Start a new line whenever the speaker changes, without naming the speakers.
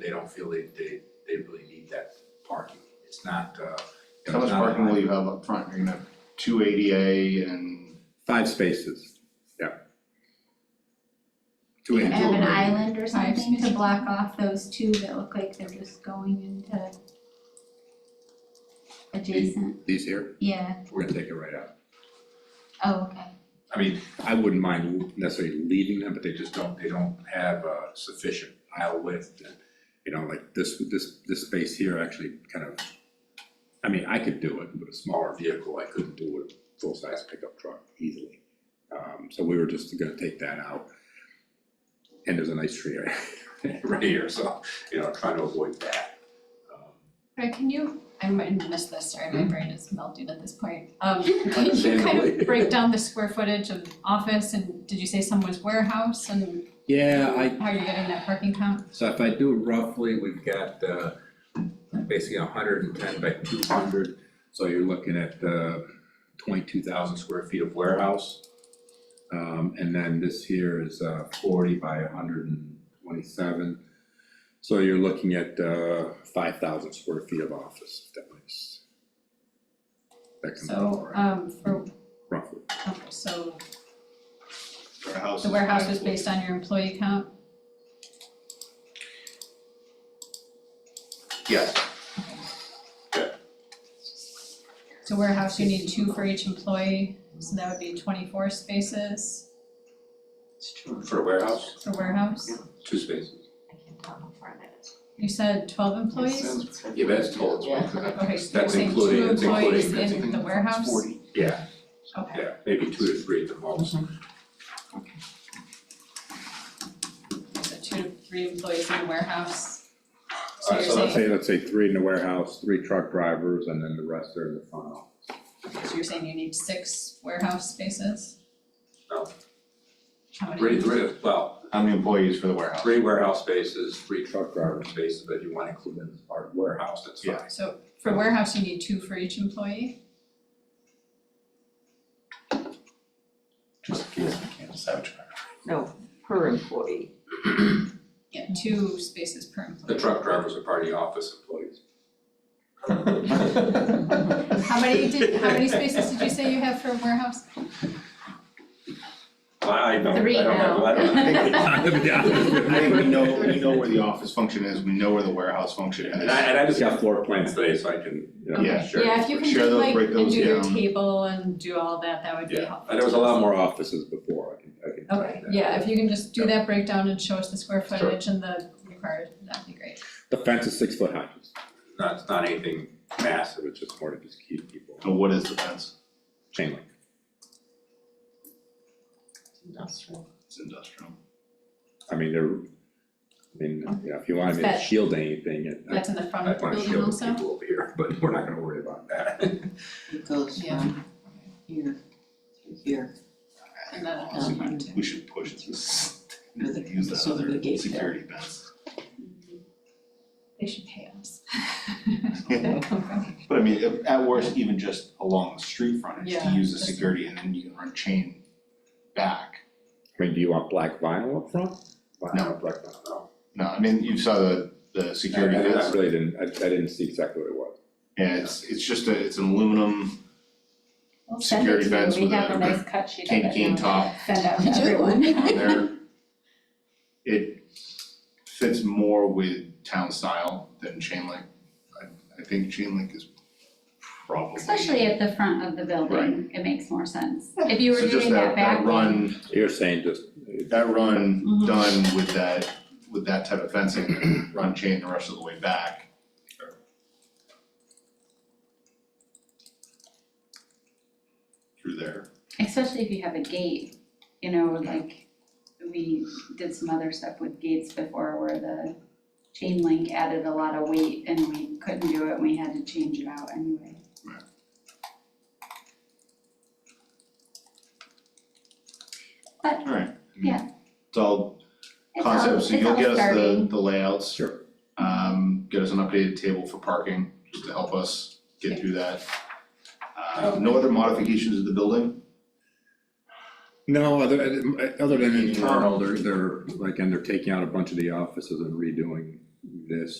they don't feel they, they, they really need that parking. It's not, uh. you know,
How much
it's not a-
parking will you have up front? You're gonna have two ADA and
Five spaces, yeah. Two
Do you
in, two
have an
of them.
island or
Five
something to
spaces.
block off those two that look like they're just going into adjacent,
These here,
yeah,
we're gonna take it right out.
oh, okay.
I mean,
I wouldn't mind necessarily leaving them, but they
they just don't, they don't have uh, sufficient aisle width.
you know, like this, this, this space here actually kind of, I mean, I could do it with a smaller vehicle, I couldn't do it with a full-size pickup truck easily. Um, so we were just gonna take that out. And there's a nice tree right, right here, so,
You know, trying to avoid that. Um,
Right, can you, I might have missed this, sorry,
Hmm.
my brain is melted at this point. Um, can you kind
Understandably.
of break down the square footage of office and did you say someone's warehouse and
yeah, I,
how are you getting that parking count?
so if I do roughly, we've got, uh, basically hundred and ten by two hundred. So you're looking at, uh, twenty-two thousand square feet of warehouse. Um, and then this here is, uh, forty by hundred and twenty-seven. So you're looking at, uh, five thousand square feet of office, if that makes. That comes out all
So,
right,
um, for,
roughly.
okay, so
warehouses.
the warehouse was
is
based on your employee count?
Yes,
So warehouse, you need two for each employee, so that would be twenty-four spaces
for a warehouse,
for warehouse.
two spaces.
I can't tell how far that is.
You said twelve employees?
Yeah, but that's total. it's-
Okay, so you're
That's
saying
including,
two
it's including,
employees
it's-
in the warehouse?
yeah,
Okay.
yeah, maybe two to three at the most.
So two to three employees in the warehouse. So
Uh,
you're
so
Let's
saying,
say, let's say three in the warehouse, three truck drivers, and then the rest are in the front office.
so you're saying you need six warehouse spaces?
No.
How many?
Three, three, well,
How many employees for the warehouse?
three warehouse spaces, three truck driver spaces, but you wanna include in our warehouse, that's fine.
Yeah.
So for warehouse, you need two for each employee?
just in case we can't salvage back.
No, per employee.
Yeah, two spaces per employee.
The truck drivers are part of the office employees.
How many did, how many spaces did you say you have for warehouse?
I I don't, I
Three
don't have,
now.
I don't have.
I think we know, we know where the office function is, we know where the warehouse function is.
And I, and I just got floor plans today, so I can, you know,
Yeah.
sure.
Yeah, if you can
Share
do
those,
like,
break
and
those
do your
down.
table and do all that, that would be
Yeah,
helpful.
and there was a
to us.
lot
lot
more
more offices before, I can, I can tell
Okay,
you that.
yeah, if you can just do that breakdown and show us the square footage and the required, that'd be great.
The fence is six foot high, it's
not, it's not anything massive,
massive, it's just more to just keep people,
And what is the fence?
chain link.
Industrial.
It's industrial.
I mean, they're, I mean, you know, if you wanna make
That-
a shield anything, it, I
That's in the front of
I'd
the
wanna
building
shield
also?
the people over here, but we're not gonna worry about that.
It goes
Yeah.
from here to here.
And then it has
Honestly,
front too.
We should push this,
With a-
use that
so with a
other
gate there.
security fence.
They should pay us.
Yeah. But I mean, if- at worst, even just along the street frontage, to
Yeah,
use the
that's-
security and then you can run chain back.
mean, do you want black vinyl up front? Black-
No.
Black vinyl, no.
No, I mean, you saw the, the
I,
security
I- I
fence,
really didn't, I, I didn't see exactly what it was.
yeah, it's, it's just a, it's an aluminum
We'll send it
security
to you.
fence
we
with
have a nice
a
cut sheet of it.
cane cane
and we'll
top
Send out to
You do?
everyone.
on there. It fits more with town style than chain link. I, I think chain link is probably.
Especially at the front of the building, it makes more sense. If you were
So just
doing that back
That
one,
run,
You're saying just,
that run
Mhm.
done with that, with that type of fencing, and run chain the rest of the way back. Through there.
especially if you have a gate, you know, like we did some other stuff with gates before where the chain link added a lot of weight and we couldn't do it and we had to change it out anyway.
Right.
But
Alright. I mean,
Yeah.
It's all
it's all,
concepts,
it's
so you'll
all
get us the,
starting.
the layouts.
Sure.
Um, get us an updated table for parking, just to help us get through that. Uh,
Oh,
no other modifications to the building?
no, other, other than internal, they're, they're, like, and they're taking out a bunch of the offices and redoing this